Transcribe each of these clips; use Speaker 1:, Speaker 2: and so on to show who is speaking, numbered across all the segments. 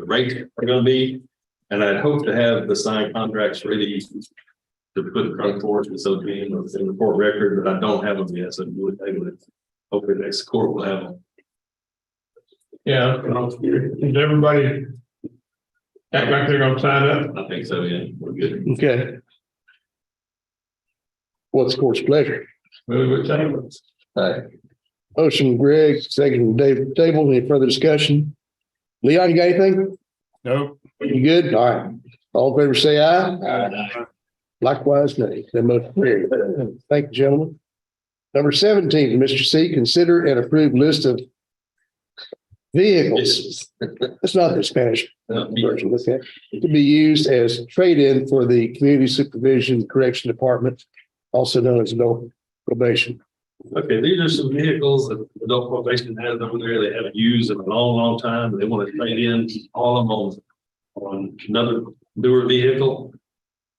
Speaker 1: rates are gonna be. And I'd hope to have the signed contracts ready to put in front of court and so be in the in the court record, but I don't have them yet, so we'll table it. Hopefully next court will have them.
Speaker 2: Yeah, you know, is everybody act like they're gonna sign up?
Speaker 1: I think so, yeah, we're good.
Speaker 3: Okay. What's the court's pleasure?
Speaker 2: Move with tables.
Speaker 3: Motion Greg, second Dave Table, any further discussion? Leon, you got anything?
Speaker 2: No.
Speaker 3: You good? All right. All in favor, say aye. Likewise, nay. That motion carried. Thank you, gentlemen. Number seventeen, Mr. C, consider and approve list of vehicles. It's not the Spanish version, let's say, to be used as trade-in for the Community Supervision Correction Department, also known as adult probation.
Speaker 1: Okay, these are some vehicles that adult probation has over there. They haven't used in a long, long time. They want to trade in all of them on another newer vehicle.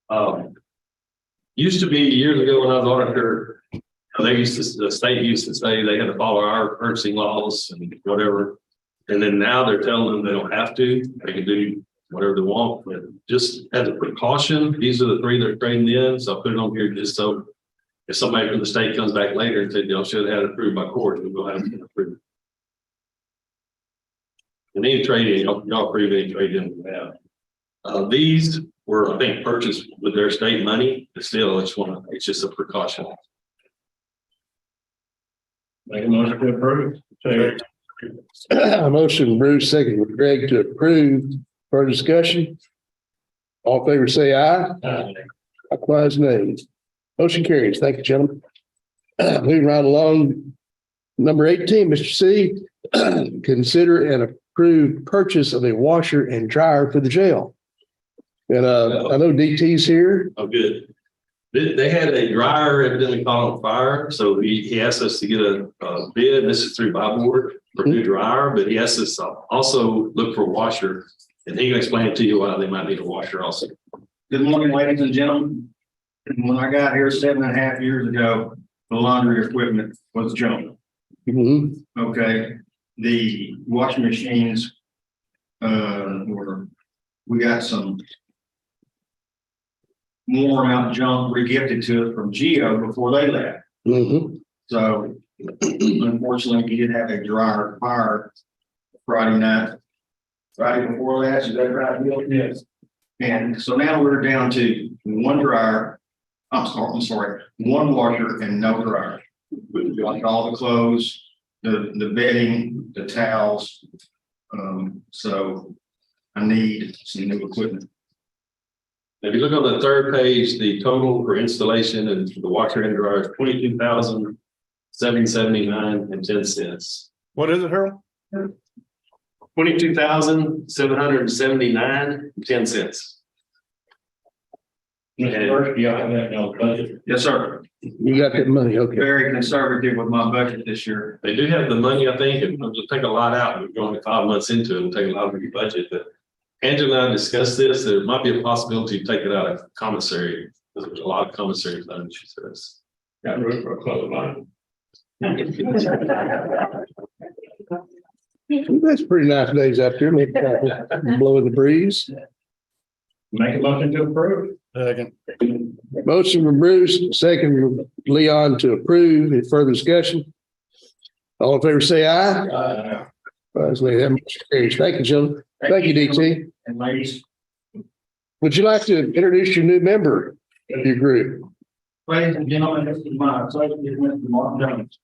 Speaker 1: Um, used to be years ago when I was auditor, they used to, the state used to say they had to follow our purchasing laws and whatever. And then now they're telling them they don't have to. They can do whatever they want. But just as a precaution, these are the three they're trading in. So I put it on here just so if somebody from the state comes back later and said, y'all should have had it approved by court, we will have it approved. And any trade in, y'all y'all approve any trade in we have. Uh, these were, I think, purchased with their state money, but still, it's one, of- it's just a precaution.
Speaker 2: Make a motion to approve. Second.
Speaker 3: Motion Bruce, second with Greg to approve. Further discussion? All in favor, say aye.
Speaker 1: Oh,
Speaker 3: Likewise, nay. Motion carries. Thank you, gentlemen. Moving right along. Number eighteen, Mr. C, consider and approve purchase of a washer and dryer for the jail. And uh, I know DT's here.
Speaker 1: Oh, good. They, they had a dryer evidently caught on fire, so he, he asked us to get a, a bid, and this is through Bob Ward for new dryer, but he asked us to also look for a washer. And he can explain to you why they might need a washer also.
Speaker 4: Good morning, ladies and gentlemen. When I got here seven and a half years ago, the laundry equipment was junk.
Speaker 3: Mhm.
Speaker 4: Okay, the washing machines. Uh, were, we got some. Worn out junk regifted to us from Geo before they left.
Speaker 3: Mhm.
Speaker 4: So unfortunately, we did have a dryer fire Friday night. Friday before last, is that right, Bill? Yes. And so now we're down to one dryer, I'm sorry, I'm sorry, one washer and no dryer. We've got all the clothes, the, the bedding, the towels. Um, so I need some new equipment.
Speaker 1: If you look on the third page, the total for installation and the washer and dryer is twenty-two thousand seven seventy-nine and ten cents.
Speaker 2: What is it, Harold?
Speaker 1: Twenty-two thousand seven hundred and seventy-nine and ten cents.
Speaker 2: Mr. Burke, I have that in the budget.
Speaker 4: Yes, sir.
Speaker 3: You got that money, okay.
Speaker 4: Very conservative with my budget this year.
Speaker 1: They do have the money, I think, and it'll take a lot out. We're going five months into it, it'll take a lot of your budget, but Angela and I discussed this. There might be a possibility to take it out of commissary. because There's a lot of commissary funds, she says.
Speaker 2: Got room for a clothesline.
Speaker 3: That's pretty nice days out there, maybe kind of blowing the breeze.
Speaker 2: Make a motion to approve.
Speaker 3: Motion from Bruce, second from Leon to approve. Any further discussion? All in favor, say aye.
Speaker 2: Uh,
Speaker 3: Likewise, nay. That motion carries. Thank you, gentlemen. Thank you, DT.
Speaker 4: And ladies,
Speaker 3: Would you like to introduce your new member of your group?
Speaker 4: Ladies and gentlemen, this is my pleasure to introduce Mark Jones.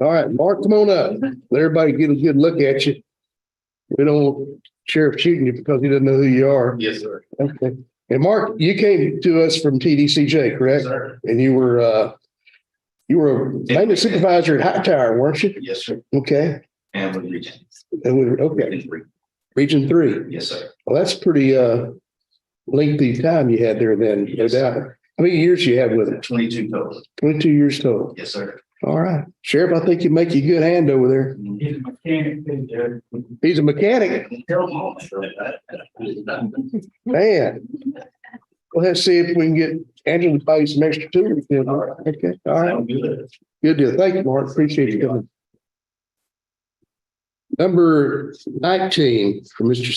Speaker 3: All right, Mark, come on up. Let everybody get a good look at you. We don't want Sheriff shooting you because he doesn't know who you are.
Speaker 1: Yes, sir.
Speaker 3: Okay. And Mark, you came to us from TDCJ, correct?
Speaker 4: Sir.
Speaker 3: And you were, uh, you were a maintenance supervisor at High Tower, weren't you?
Speaker 4: Yes, sir.
Speaker 3: Okay.
Speaker 4: And with Regent.
Speaker 3: And we, were- okay. Region three.
Speaker 4: Yes, sir.
Speaker 3: Well, that's pretty uh lengthy time you had there then, no
Speaker 4: Yes.
Speaker 3: doubt. How many years you had with it?
Speaker 4: Twenty-two total.
Speaker 3: Twenty-two years total.
Speaker 4: Yes, sir.
Speaker 3: All right. Sheriff, I think you make you a good hand over there.
Speaker 4: He's a mechanic, too, Jerry.
Speaker 3: He's a mechanic,
Speaker 4: Tell him all. All
Speaker 3: man. Well, let's see if we can get Angela to buy you some extra tools. then. Okay, all right.
Speaker 4: Sound good.
Speaker 3: Good deal. Thank you, Mark. Appreciate you coming. Number nineteen for Mr.